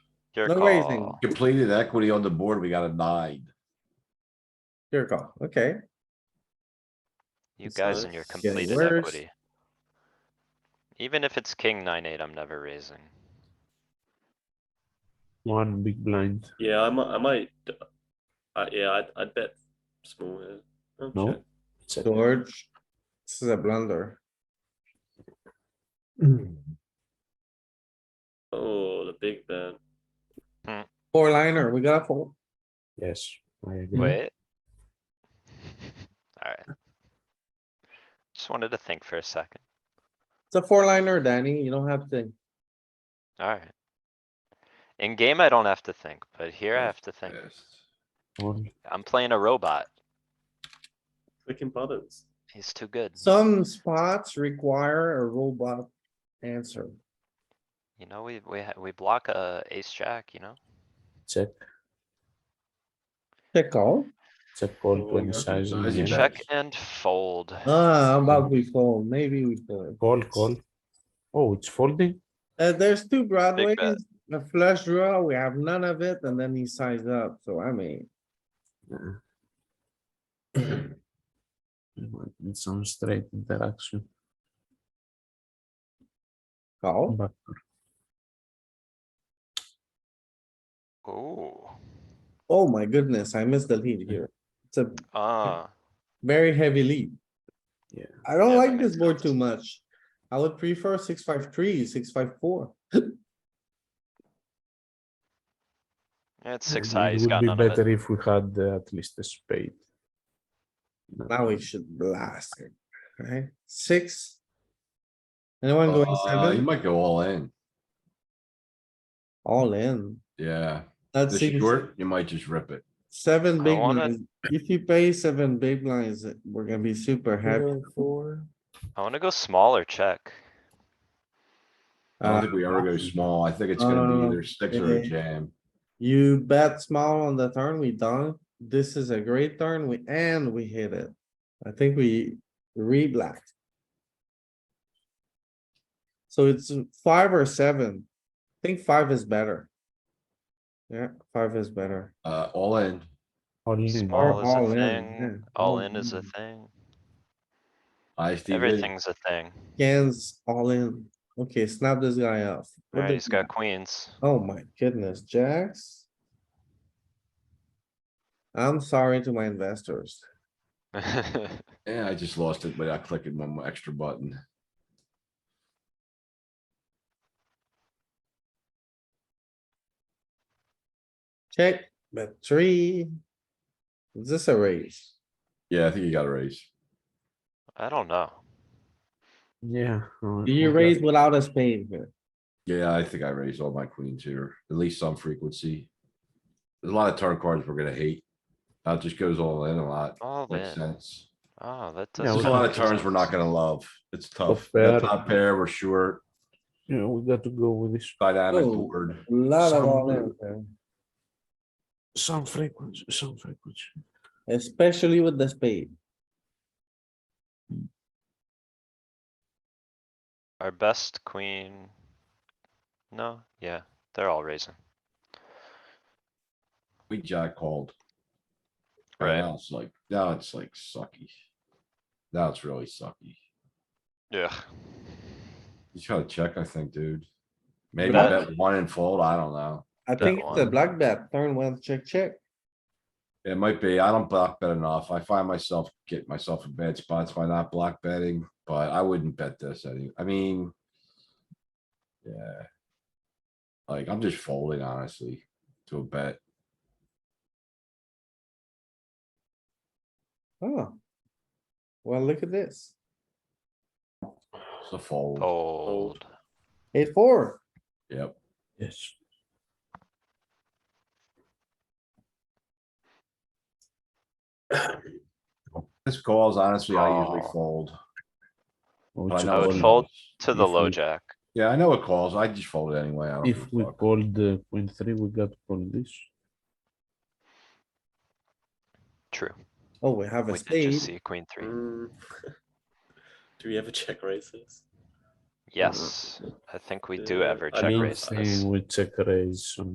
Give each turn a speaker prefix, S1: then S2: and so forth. S1: Your
S2: No raising.
S1: call.
S3: Completed equity on the board, we got a nine.
S2: Your call, okay.
S1: You
S2: So
S1: guys and your
S2: it's getting
S1: completed
S2: worse.
S1: equity. Even if it's king nine eight, I'm never raising.
S4: One big blind.
S5: Yeah, I might. I might. Uh, yeah, I'd, I'd bet small here. Oh,
S4: No.
S5: check.
S2: George, this is a blunder. Mm.
S5: Oh, the big bet.
S2: Four liner, we got a fold.
S4: Yes, I agree.
S1: Wait. Alright. Just wanted to think for a second.
S2: It's a four liner, Danny. You don't have to.
S1: Alright. In game, I don't have to think, but here I have to think.
S3: Yes.
S4: One.
S1: I'm playing a robot.
S5: Clicking buttons.
S1: He's too good.
S2: Some spots require a robot answer.
S1: You know, we, we, ha- we block a ace jack, you know?
S6: check,
S2: Check call.
S6: check call
S5: Oh,
S6: twenty
S5: yeah.
S6: size.
S3: Size
S6: yeah.
S3: is
S1: Check and fold.
S2: Ah, how about we fold, maybe we fold.
S6: Call, call. Oh, it's folding?
S2: Uh, there's two broadways,
S1: bet.
S2: a flush draw, we have none of it, and then he sized up, so I mean,
S6: Uh-uh. It's on straight interaction.
S2: call.
S6: But
S1: Ooh,
S2: Oh my goodness, I missed the lead here. It's a
S1: ah,
S2: very heavy lead.
S6: Yeah.
S2: I don't
S1: Yeah,
S2: like
S1: that
S2: this
S1: makes
S2: board
S1: sense.
S2: too much. I would prefer six, five, three, six, five, four.
S1: it's
S6: it
S1: six high, he's
S6: would
S1: got
S6: be
S1: none of
S6: Better
S1: it.
S6: if we had uh, at least a spade. No.
S2: Now we should blast it, right? Six. Anyone going
S3: Uh, you
S2: seven?
S3: might go all in,
S2: All in.
S3: yeah.
S2: That's
S3: This
S2: seems
S3: short, you might just rip it.
S2: seven
S1: I
S2: big
S1: wanna-
S2: lines. If you pay seven big lines, we're gonna be super happy.
S1: I wanna go small or check.
S3: I don't
S2: Uh,
S3: think we ever go small. I think it's
S2: uh,
S3: gonna be either six or a
S2: it-
S3: jam.
S2: You bet small on the turn, we dunk. This is a great turn, we, and we hit it. I think we re-black. So it's five or seven. I think five is better. Yeah, five is better.
S3: Uh, all in.
S6: Only
S1: Small
S2: Or
S1: is
S2: all
S1: a
S2: in,
S1: thing,
S2: yeah, all
S1: all in is a
S2: in.
S1: thing,
S3: ISTV.
S1: everything's a thing.
S2: Cans all in. Okay, snap this guy off. What
S1: Alright,
S2: the-
S1: he's got queens.
S2: Oh my goodness, jacks. I'm sorry to my investors.
S3: Yeah, I just lost it without clicking one more extra button.
S2: Check, bet three. Is this a raise?
S3: Yeah, I think you gotta raise.
S1: I don't know.
S6: Yeah. uh,
S2: Do you
S6: okay.
S2: raise without a spade here?
S3: Yeah, I think I raised all my queens here, at least some frequency. There's a lot of turn cards we're gonna hate. That just goes all in a lot,
S1: All
S3: makes
S1: in,
S3: sense.
S1: oh, that
S6: Yeah,
S1: does.
S3: There's a lot of turns we're not gonna love. It's tough.
S6: pair.
S3: The top pair, we're short,
S6: Yeah, we got to go with this,
S3: dynamic
S2: Oh.
S3: board.
S2: Lot of
S6: Some-
S2: all in, there,
S6: some frequency, some frequency.
S2: uh, especially with the spade.
S1: Our best queen. No, yeah, they're all raising.
S3: We jack called. And
S1: Right.
S3: Now it's like, now it's like sucky. Now it's really sucky.
S1: Yeah.
S3: You gotta check, I think, dude. Maybe
S2: But
S1: I-
S3: bet one and fold, I don't know.
S2: I
S1: That
S2: think it's a
S1: one.
S2: black bet, turn one, check, check.
S3: It might be, I don't block bet enough. I find myself, get myself in bad spots by not block betting, but I wouldn't bet this any, I mean. Yeah. Like, I'm just folding honestly to a bet.
S2: Oh. Well, look at this.
S3: It's a fold.
S1: Fold.
S2: Eight, four.
S3: Yep.
S6: Yes.
S3: This calls honestly, I usually
S1: Oh.
S3: fold.
S6: Oh,
S3: but
S6: it's
S3: know
S1: I
S6: a
S1: would
S3: it
S6: call.
S1: fold. To the
S6: If
S1: low
S6: we-
S1: jack.
S3: Yeah, I know it calls. I just fold it anyway. I don't give
S6: If
S3: a
S6: we
S3: fuck.
S6: called the queen three, we got to call this.
S1: True.
S2: Oh, we have a
S1: We did just
S2: spade.
S1: see queen three.
S5: Mm. Do we ever check races?
S1: Yes, I think we do
S5: Uh,
S1: ever
S5: I
S1: check
S5: mean,
S1: raise this.
S6: Saying we check raise on